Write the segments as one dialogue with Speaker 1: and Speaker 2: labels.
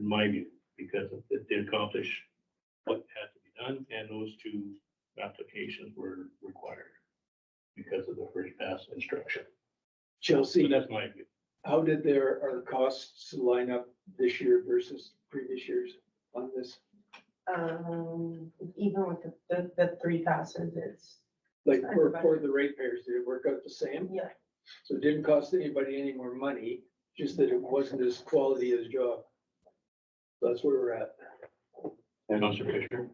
Speaker 1: my view, because it did accomplish what had to be done, and those two applications were required because of the first pass instruction. So
Speaker 2: Chelsea,
Speaker 1: that's my view.
Speaker 2: how did their, are the costs line up this year versus previous years on this?
Speaker 3: Um, even with the, the, the three passes, it's,
Speaker 2: Like for, for the ratepayers, did it work out the same?
Speaker 3: yeah,
Speaker 2: So it didn't cost anybody any more money, just that it wasn't as quality as job. That's where we're at.
Speaker 1: Councilor Fisher?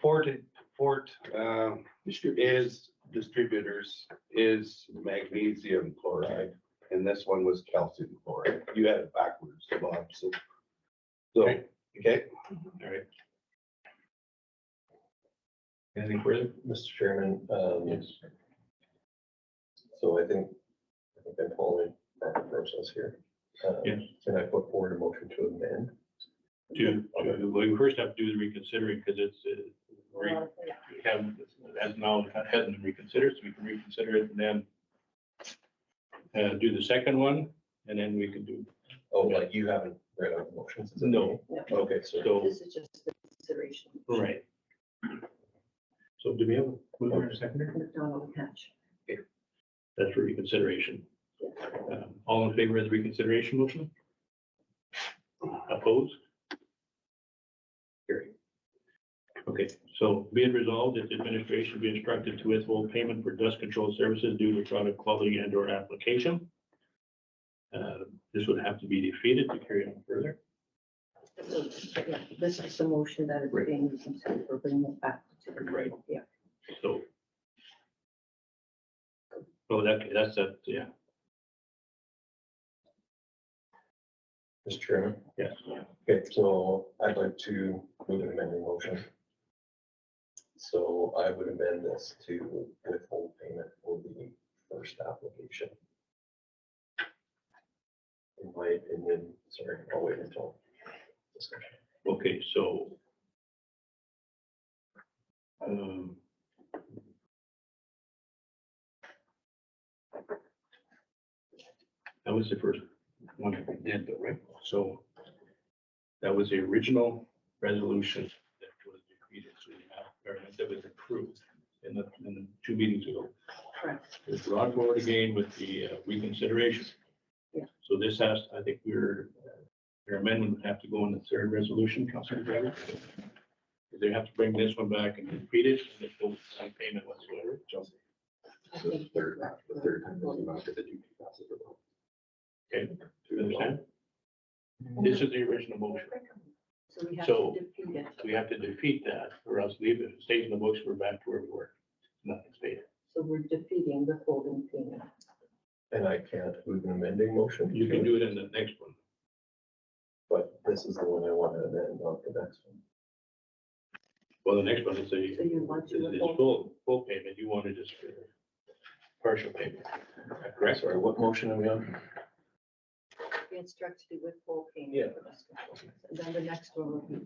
Speaker 4: Fort, Fort, um,
Speaker 2: Distributed.
Speaker 4: is distributors is magnesium chloride, and this one was calcium chloride. You had it backwards, Bob, so. So, okay,
Speaker 1: All right,
Speaker 5: Anything further? Mr. Chairman, um. Yes. So I think, I think I'm following proper process here. Um,
Speaker 1: Yes.
Speaker 5: Can I put forward a motion to amend?
Speaker 1: do, well, we first have to do the reconsidering, because it's, uh, re-
Speaker 3: well, yeah.
Speaker 1: we haven't, as now, it hasn't been reconsidered, so we can reconsider it and then uh, do the second one, and then we can do,
Speaker 5: Oh, like you haven't read out the motions? is that
Speaker 1: No.
Speaker 5: right? Okay, so
Speaker 1: so,
Speaker 6: This is just the consideration.
Speaker 1: right. So do we have a mover and a seconder?
Speaker 6: McDonald Hatch.
Speaker 1: That's for reconsideration. Um, All in favor of the reconsideration motion? Opposed? Carry. Okay, so be it resolved that the administration be instructed to withhold payment for dust control services due to product quality and or application. Uh, This would have to be defeated to carry on further.
Speaker 6: So, yeah, This is the motion that is
Speaker 1: Right.
Speaker 6: being considered for bringing it back. to the
Speaker 1: Right.
Speaker 6: Yeah.
Speaker 1: So. Oh, that, that's, a- yeah,
Speaker 5: Mr. Chairman,
Speaker 1: yes.
Speaker 5: okay, so I'd like to move an amending motion. So I would amend this to withhold payment for the first application. In my opinion, sorry, I'll wait until. discussion.
Speaker 1: Okay, so. um, That was the first one that we did, though, right? So that was the original resolution that was defeated, so we have, or that was approved in the, in the two meetings ago.
Speaker 6: Correct.
Speaker 1: It was brought forward again with the uh, reconsideration.
Speaker 6: Yeah.
Speaker 1: So this has, I think your, uh, your amendment would have to go in the third resolution, Councilor Gregory. They have to bring this one back and repeat it, and it's no sign payment whatsoever. So,
Speaker 6: I
Speaker 4: the
Speaker 6: think
Speaker 4: third, the third time, doesn't matter that you pass it along.
Speaker 1: Okay, do you understand? This is the original motion.
Speaker 6: So we have
Speaker 1: So-
Speaker 6: to defeat it.
Speaker 1: We have to defeat that or else leave it, If it stays in the books, we're back to where we were. Nothing's paid.
Speaker 6: So we're defeating the holding payment.
Speaker 5: And I can't move an amending motion.
Speaker 1: You can do it in the next one.
Speaker 5: But this is the one I want to amend, not the next one.
Speaker 1: Well, the next one is a,
Speaker 6: So you want to
Speaker 1: is
Speaker 6: withhold-
Speaker 1: full, full payment. You wanted just uh, partial payment. Correct?
Speaker 5: Sorry, what motion are we on?
Speaker 6: we instruct to withhold payment.
Speaker 5: Yeah.
Speaker 6: for this one. And then the next one will be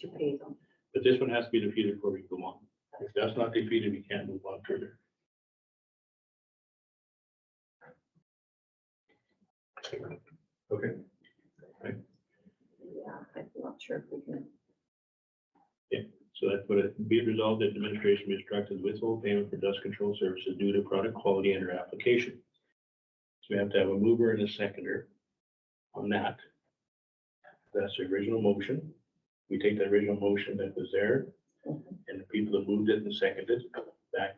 Speaker 6: to pay them.
Speaker 1: But this one has to be defeated before we go on. If that's not defeated, we can't move on further.
Speaker 5: Okay.
Speaker 6: Yeah, I'm not sure if we can.
Speaker 1: So that's what it, be it resolved that the administration be instructed to withhold payment for dust control services due to product quality and or application. So we have to have a mover and a seconder on that. That's the original motion. We take the original motion that was there and the people that moved it and seconded back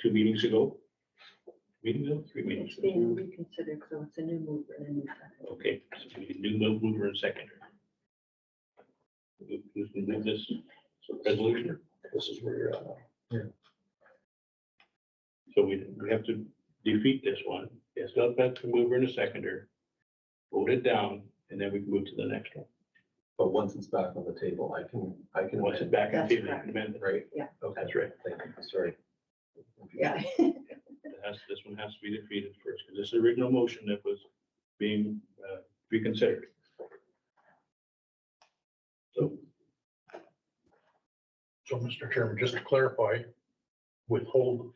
Speaker 1: two meetings ago. Meeting ago, three meetings.
Speaker 6: It's
Speaker 1: ago.
Speaker 6: being reconsidered, so it's a new move and a new second.
Speaker 1: Okay, so we do move mover and seconder. Who- Who's gonna move this resolution?
Speaker 5: This is where you're at. now.
Speaker 1: So we, we have to defeat this one. It's not that the mover and a seconder. Vote it down and then we can move to the next one.
Speaker 5: But once it's back on the table, I can, I can.
Speaker 1: Once it's
Speaker 5: amend,
Speaker 1: back on
Speaker 6: That's
Speaker 1: table, you
Speaker 6: correct.
Speaker 1: can amend it.
Speaker 5: Right?
Speaker 6: Yeah.
Speaker 5: Okay,
Speaker 1: That's right.
Speaker 5: thank you, sorry.
Speaker 6: Yeah.
Speaker 1: It has- this one has to be defeated first because this is the original motion that was being uh, reconsidered. So
Speaker 7: So, Mr. Chairman, just to clarify, withhold,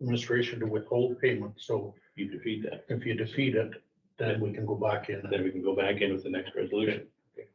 Speaker 7: administration to withhold payment, so
Speaker 1: you defeat that.
Speaker 7: if you defeat it, then we can go back in.
Speaker 1: Then we can go back in with the next resolution.